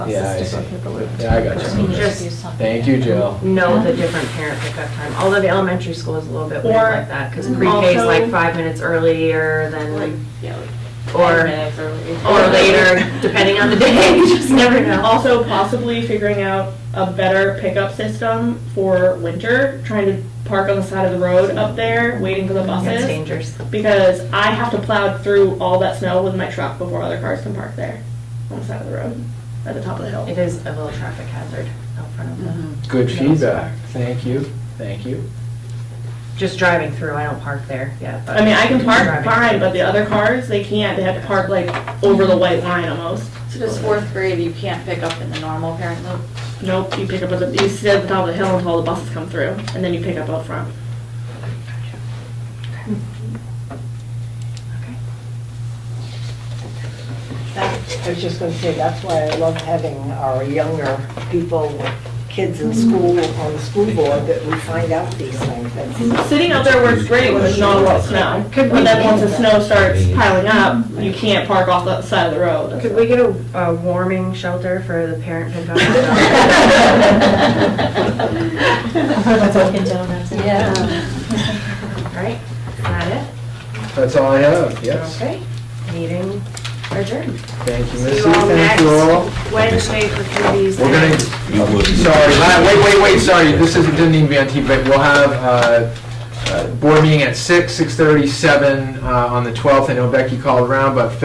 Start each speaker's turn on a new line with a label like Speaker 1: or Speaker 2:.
Speaker 1: Yeah, I
Speaker 2: process
Speaker 1: see.
Speaker 2: different paperwork.
Speaker 1: Yeah, I got
Speaker 2: So
Speaker 1: you.
Speaker 2: we need to
Speaker 3: Just-
Speaker 2: do something
Speaker 1: Thank you,
Speaker 2: different.
Speaker 1: Jill.
Speaker 3: know the different parent pickup time, although the elementary school is a little bit weird
Speaker 4: Or
Speaker 3: like that, because pre-K is
Speaker 4: also-
Speaker 3: like five minutes earlier than,
Speaker 4: yeah, like
Speaker 3: or, or later, depending on the day, you just never know.
Speaker 4: Also, possibly figuring out a better pickup system for winter, trying to park on the side of the road up there, waiting for the
Speaker 3: That's
Speaker 4: buses.
Speaker 3: dangerous.
Speaker 4: Because I have to plow through all that snow with my truck before other cars can park there on the side of the road, at the top of the hill.
Speaker 3: It is a little traffic hazard out front of
Speaker 4: Mm-hmm.
Speaker 3: them.
Speaker 1: Good
Speaker 3: Yeah.
Speaker 1: feedback. Thank you, thank you.
Speaker 3: Just driving through, I don't park there yet, but.
Speaker 4: I mean, I can park
Speaker 3: Driving.
Speaker 4: fine, but the other cars, they can't, they have to park like over the white line almost.
Speaker 5: So does fourth grade, you can't pick up in the normal parent loop?
Speaker 4: Nope, you pick up at the, you sit at the top of the hill until the buses come through, and then you pick up out front.
Speaker 3: Okay.
Speaker 6: That, I was just gonna say, that's why I love having our younger people, with kids in school, on the school board, that we find out these things. That's-
Speaker 4: Sitting out there works great when there's not a lot of snow. But then once the snow starts piling up, you can't park off the side of the road.
Speaker 3: Could we get a, a warming shelter for the parent pickup?
Speaker 2: That's Dunkin' Donuts.
Speaker 3: Right, is that
Speaker 1: That's all I have,
Speaker 3: it?
Speaker 1: yes.
Speaker 3: Okay, meeting adjourned.
Speaker 1: Thank you,
Speaker 3: See
Speaker 1: Missy,
Speaker 3: you all
Speaker 1: thank you
Speaker 3: next
Speaker 1: all.
Speaker 3: Wednesday for committees.
Speaker 1: We're gonna,
Speaker 7: You would.
Speaker 1: sorry, uh, wait, wait, wait, sorry, this is, didn't even be on TV, but we'll have, uh, uh, board meeting at six, six thirty, seven, uh, on the twelfth. I know Becky called around, but